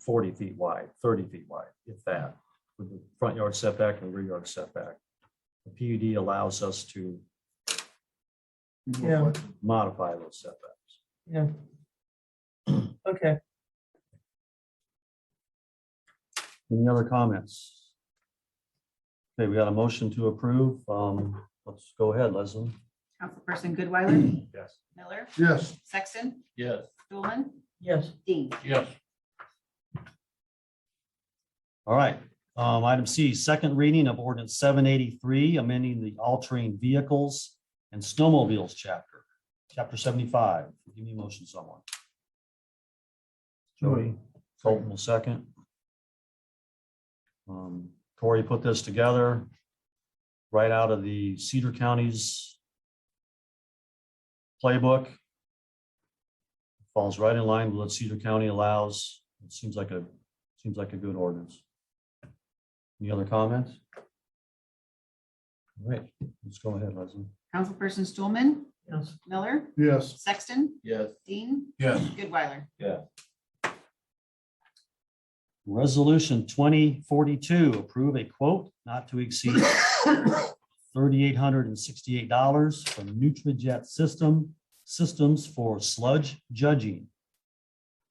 forty feet wide, thirty feet wide, if that, with the front yard setback and rear yard setback. The PUD allows us to Yeah. modify those setbacks. Yeah. Okay, Any other comments? Okay, we got a motion to approve. Um, let's go ahead, Leslie. Councilperson Goodweiler? Yes. Miller? Yes. Sexton? Yes. Stulman? yes, Dean? Yes. All right, um, item C, second reading of ordinance seven eighty-three, amending the all-terrain vehicles and snowmobiles chapter, chapter seventy-five. Give me a motion, someone. Jody, Colton will second. Um, Corey put this together right out of the Cedar County's playbook. Falls right in line with what Cedar County allows. It seems like a, seems like a good ordinance. Any other comments? All right, let's go ahead, Leslie. Councilperson Stulman? yes, Miller? Yes. Sexton? Yes. Dean? Yes. Goodweiler? Resolution twenty forty-two, approve a quote not to exceed thirty-eight hundred and sixty-eight dollars from NutriJet System, Systems for sludge judging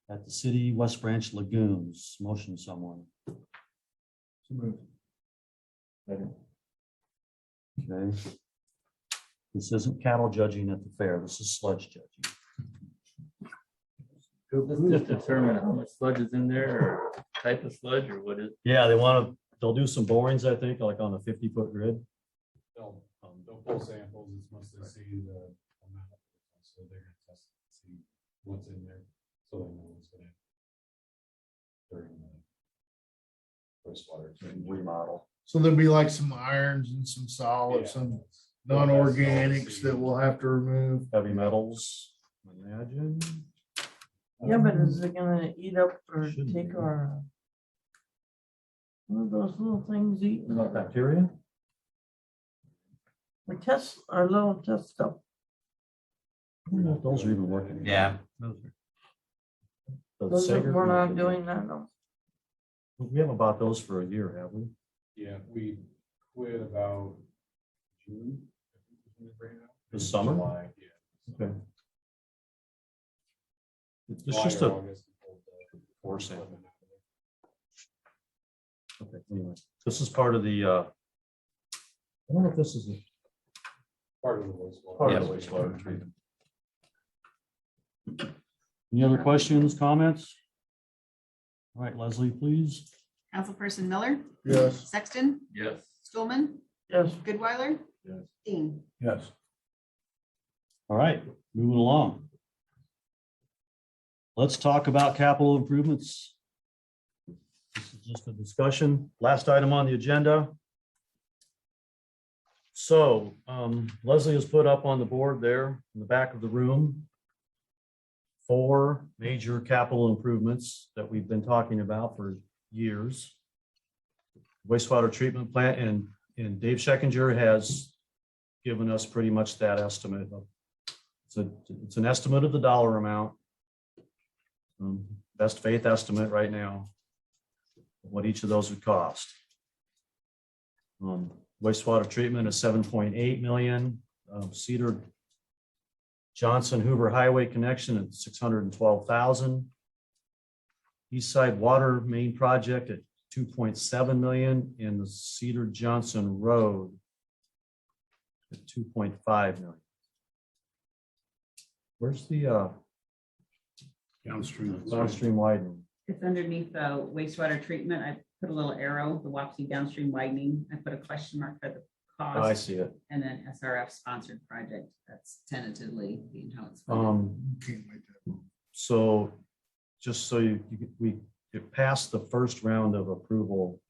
at the city West Branch lagoons. Motion someone. Okay. This isn't cattle judging at the fair. This is sludge judging. Let's just determine how much sludge is in there, or type of sludge, or what is, Yeah, they want to, they'll do some borings, I think, like on a fifty-foot grid. They'll, um, they'll pull samples, it's mostly to see the amount, so they're gonna test, and see what's in there, so they know what's gonna. During the. Wastewater. Remodel. So there'll be like some irons and some solids, some non-organics that we'll have to remove. Heavy metals, imagine. yeah, but is it gonna eat up or Uh, hmm. Shouldn't take be. our? uh, One of those little things eat, Not bacteria? we test our little test stuff, Those are even working. Yeah. The those are- Sager- we're not doing that, no. We haven't bought those for a year, have we? Yeah, we quit about June. I think is when they bring it out. This summer? July, Yeah. Okay. It's July just or a, August, we pulled the- Or sample. Okay, anyway, this is part of the, uh, I don't know if this is. a- Part of the wastewater. part of the wastewater treatment. Any other questions, comments? All right, Leslie, please. Councilperson Miller? Yes. Sexton? yes, Stulman? Yes, Goodweiler? Yes. Dean? Yes. All right, moving along. Let's talk about capital improvements. This is just a discussion. Last item on the agenda. So um, Leslie has put up on the board there in the back of the room four major capital improvements that we've been talking about for years. Wastewater treatment plant and, and Dave Schekinger has given us pretty much that estimate of it's a, it's an estimate of the dollar amount. Um, Best faith estimate right now. What each of those would cost. Um, Wastewater treatment is seven point eight million, Um, Cedar Johnson Hoover Highway connection at six hundred and twelve thousand. East Side Water Main Project at two point seven million and the Cedar Johnson Road at two point five million. Where's the uh, Downstream. downstream widening? It's underneath the wastewater treatment. I put a little arrow, the Wapsie downstream widening. I put a question mark for the Oh, I see it. And then SRF sponsored project. That's tentatively being how it's. Um, Can't wait to- so just so you, you get- we, it passed the first round of approval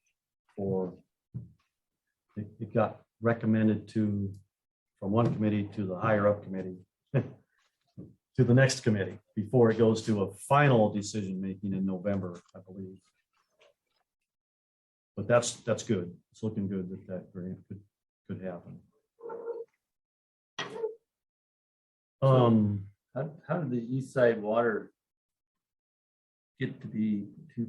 for it, it got recommended to, from one committee to the higher up committee to the next committee before it goes to a final decision making in November, I believe. But that's, that's good. It's looking good that that grant could, could happen. Um. Um, how, how did the east side water get to be two